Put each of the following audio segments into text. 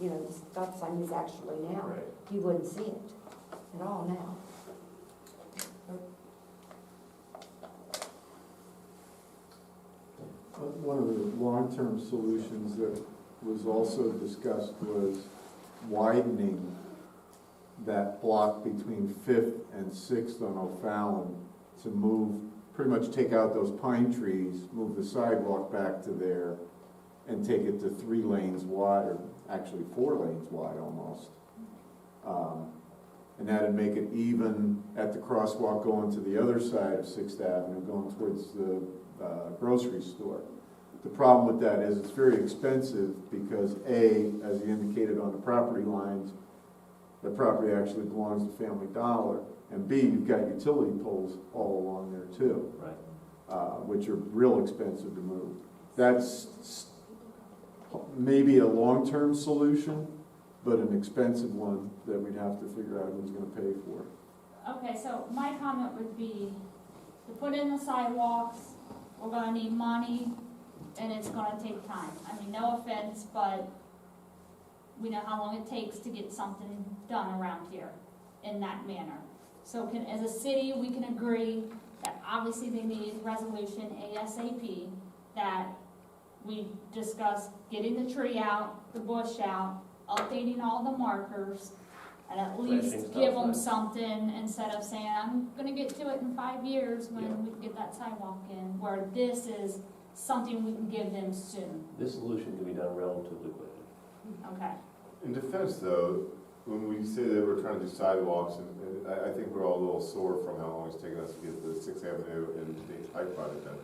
you know, the stop sign is actually now. Right. You wouldn't see it at all now. Uh, One of the long-term solutions that was also discussed was widening that block between Fifth and Sixth on O'Fallon to move, pretty much take out those pine trees, move the sidewalk back to there, and take it to three lanes wide, or actually four lanes wide almost. Um, And that'd make it even at the crosswalk going to the other side of Sixth Avenue, going towards the uh, grocery store. The problem with that is it's very expensive because A, as you indicated on the property lines, the property actually belongs to Family Dollar. And B, you've got utility poles all along there too, Right. uh, which are real expensive to move. That's s- maybe a long-term solution, but an expensive one that we'd have to figure out who's gonna pay for. Okay, so my comment would be, to put in the sidewalks, we're gonna need money, and it's gonna take time. I mean, no offense, but we know how long it takes to get something done around here in that manner. So can, as a city, we can agree that obviously they need resolution ASAP, that we discuss getting the tree out, the bush out, updating all the markers, and at least Flashing give them stop signs. something instead of saying, I'm gonna get to it in five years Yeah. when we get that sidewalk in, where this is something we can give them soon, This solution can be done relatively quickly. Mm-hmm. okay? In defense, though, when we say that we're trying to do sidewalks, and and I, I think we're all a little sore from how long it's taken us to get the Sixth Avenue and James Pike project done.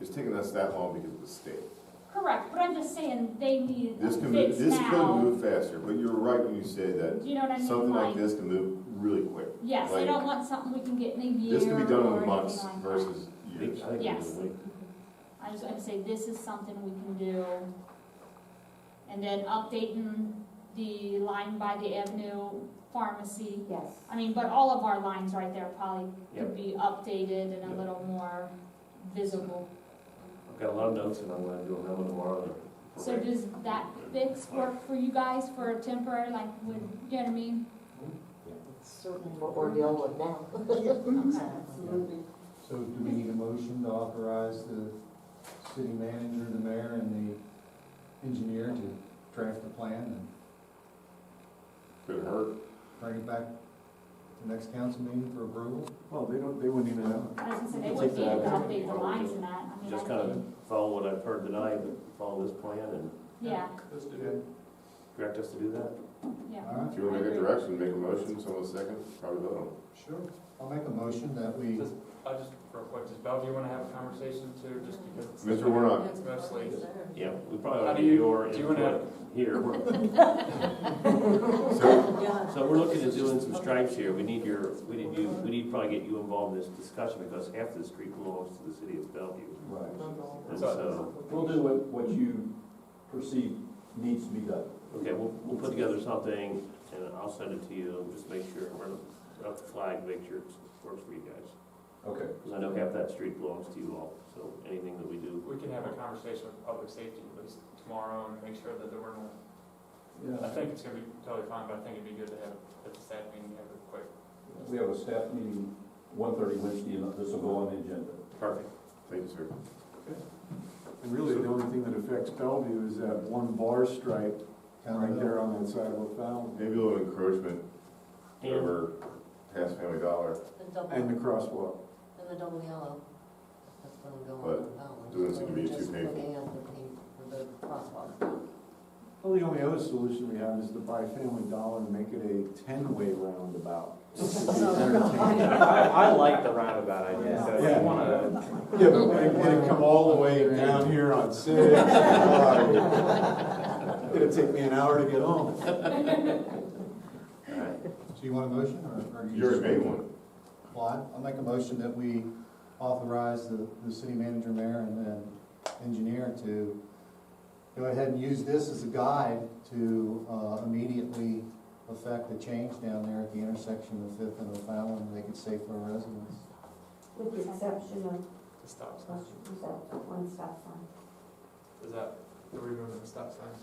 It's taken us that long because of the state. Correct, but I'm just saying, they need a This can, move- fix this could now. move faster, but you're right when you say that Do you know what I mean? something like Like, this can move really quick. yes, I like- don't want something we can get in a year This can be done or in months anything like that. versus I years. think it's Yes. a week. I just, I'd say this is something we can do. And then updating the line by the avenue pharmacy. Yes. I mean, but all of our lines right there probably Yep. could be updated and a Yep. little more visible. I've got a lot of notes and I'm gonna do them tomorrow. So does that fix work for you guys for a temporary, like, would, you know what I mean? Certainly what we're dealing with now. Mm-hmm. Okay. Absolutely. So do we need a motion to authorize the city manager, the mayor, and the engineer to draft a plan and Could hurt. bring it back to the next council meeting for approval? Well, they don't, they wouldn't even have I was gonna say, they Take wouldn't be able to that out. update the lines and that, I mean, I Just kind of think, follow what I've heard tonight, but follow this plan and yeah, Let's do it. direct us to do that. yeah. All right, If you want to make a direction, make a motion, someone second, probably vote on it. sure. I'll make a motion that we, I just, real quick, does Bellevue want to have a conversation too, just because it's. Mr. Warnock, It's mostly, Yeah, we How probably do have you- your do you wanna- input here. so Yeah. So we're looking at doing some stripes here. We need your, we need you, we need to probably get you involved in this discussion because half the street belongs to the city of Bellevue. right, And so, We'll do what, what you perceive needs to be done. okay, we'll, we'll put together something and I'll send it to you. Just make sure, run up the flag, make sure it works for you guys. Okay. Because I know half that street belongs to you all, so anything that we do. we can have a conversation with public safety at least tomorrow and make sure that there were no, I Yeah, think it's gonna be totally fine, but I think it'd be good to have, at the staff meeting, have a quick. we have a staff meeting, one thirty Wednesday, and this will go on the agenda. Perfect. thank you, sir. And really, the only thing that affects Bellevue is that one bar stripe right there on that side of Oak Valley Maybe a little encouragement And over past Family Dollar. The double, and the and crosswalk. the double yellow. That's gonna go on. But and on. doing this is gonna be Just too painful. looking at the paint for the crosswalk. Well, the only other solution we have is to buy Family Dollar and make it a ten-way roundabout. I, I like the roundabout idea, so if Yeah. you wanna, Yeah, but when it- when it come all the way down here on six, God, it'd take me an hour to get home. So you want a motion or? or You already just- made one. Well, I- I'll make a motion that we authorize the, the city manager, mayor, and then engineer to go ahead and use this as a guide to uh, immediately affect the change down there at the intersection of Fifth and O'Fallon, and make it safe for our residents. With the exception of, stop sign. what's that, one stop sign. Is that, the removing the stop sign?